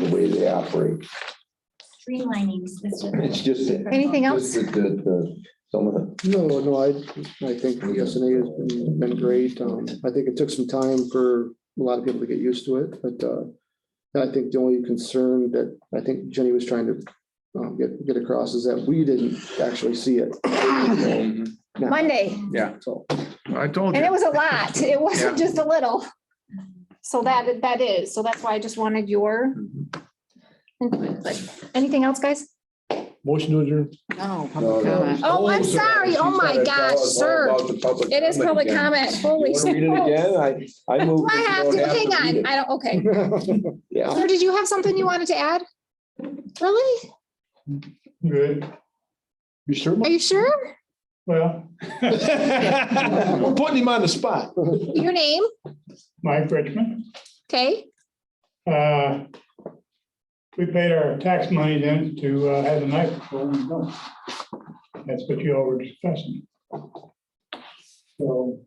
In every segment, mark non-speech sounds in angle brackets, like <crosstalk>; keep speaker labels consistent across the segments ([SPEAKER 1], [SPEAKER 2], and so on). [SPEAKER 1] the way they operate.
[SPEAKER 2] Streamlining system.
[SPEAKER 3] It's just that.
[SPEAKER 4] Anything else?
[SPEAKER 3] just that The, the, some of the,
[SPEAKER 5] No, no, I, I think SNA has been, been great. Um, I think it took some time for a lot of people to get used to it, but, uh, I think the only concern that I think Jenny was trying to, um, get, get across is that we didn't actually see it. Now,
[SPEAKER 4] Monday,
[SPEAKER 5] So,
[SPEAKER 6] I
[SPEAKER 3] Oh,
[SPEAKER 6] told you.
[SPEAKER 4] and it was a
[SPEAKER 3] <laughs>
[SPEAKER 4] lot. It wasn't just a little. So that, that is, so that's why I just wanted your.
[SPEAKER 3] Mm-hmm.
[SPEAKER 4] input. But Anything else, guys?
[SPEAKER 6] Motion to adjourn.
[SPEAKER 7] No,
[SPEAKER 3] No,
[SPEAKER 7] public
[SPEAKER 3] no.
[SPEAKER 7] comment.
[SPEAKER 4] Oh, I'm
[SPEAKER 3] She
[SPEAKER 4] sorry. Oh, my
[SPEAKER 3] said it's all
[SPEAKER 4] gosh,
[SPEAKER 3] about
[SPEAKER 4] sir.
[SPEAKER 3] the public
[SPEAKER 4] It is public
[SPEAKER 3] again.
[SPEAKER 4] comment.
[SPEAKER 3] You
[SPEAKER 4] Holy.
[SPEAKER 3] wanna Read it
[SPEAKER 4] smokes.
[SPEAKER 3] again? I, I
[SPEAKER 4] Do
[SPEAKER 3] moved.
[SPEAKER 4] I have to, hang
[SPEAKER 3] <laughs>
[SPEAKER 4] on, I <laughs> don't, okay.
[SPEAKER 3] Yeah.
[SPEAKER 4] Sir, did you have something you wanted to add? Really?
[SPEAKER 6] Good. You sure?
[SPEAKER 4] Are you sure?
[SPEAKER 6] Well. We're <laughs> putting him on the spot.
[SPEAKER 4] Your name?
[SPEAKER 8] Mike Richmond.
[SPEAKER 4] Okay,
[SPEAKER 8] Uh, We paid our tax money in to uh, have a knife before we go. That's what you all were discussing. So well,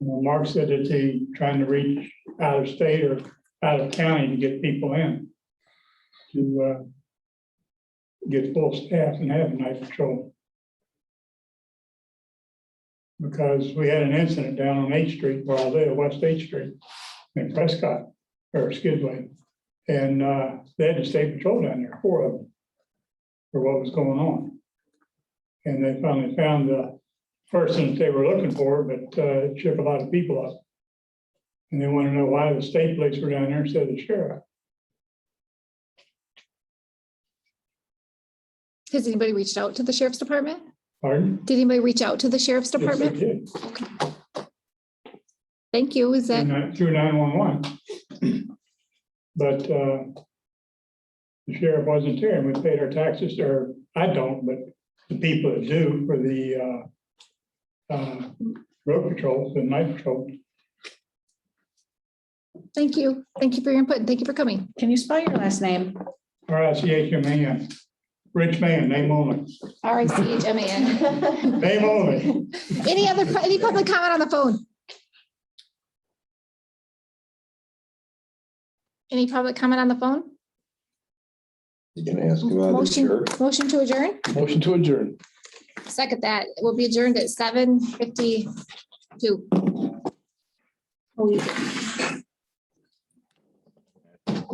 [SPEAKER 8] Mark said that he trying to reach out of state or out of county to get people in to uh, get full staff and have a knife patrol. Because we had an incident down on Eighth Street, where I live, West Eighth Street in Prescott, or Skidway. And uh, they had the state patrol down there, four of them, for what was going on. And they finally found the person that they were looking for, but uh, it shook a lot of people up. And they want to know why the state police were down there instead of the sheriff.
[SPEAKER 4] has anybody reached out to the sheriff's department?
[SPEAKER 8] Pardon?
[SPEAKER 4] Did anybody reach out to the sheriff's
[SPEAKER 8] Yes, they
[SPEAKER 4] department?
[SPEAKER 8] did.
[SPEAKER 4] Thank you, is
[SPEAKER 8] Through
[SPEAKER 4] that,
[SPEAKER 8] nine- Through nine-one-one. <clears throat> But uh, the sheriff wasn't here and we paid our taxes, or I don't, but the people that do for the uh, uh, road patrols and night patrol.
[SPEAKER 4] thank you, thank you for your input, and thank you for coming.
[SPEAKER 7] Can you spell your last name?
[SPEAKER 8] R I C H M A N. Rich man, name only,
[SPEAKER 4] R I C H M A
[SPEAKER 3] <laughs>
[SPEAKER 4] N.
[SPEAKER 8] name only.
[SPEAKER 4] <laughs> Any other, pu- any public comment on the phone? Any public comment on the phone?
[SPEAKER 3] You can ask him about the
[SPEAKER 4] Motion,
[SPEAKER 3] shirt.
[SPEAKER 4] motion to adjourn?
[SPEAKER 6] Motion to adjourn.
[SPEAKER 4] Second that, we will be adjourned at seven fifty-two.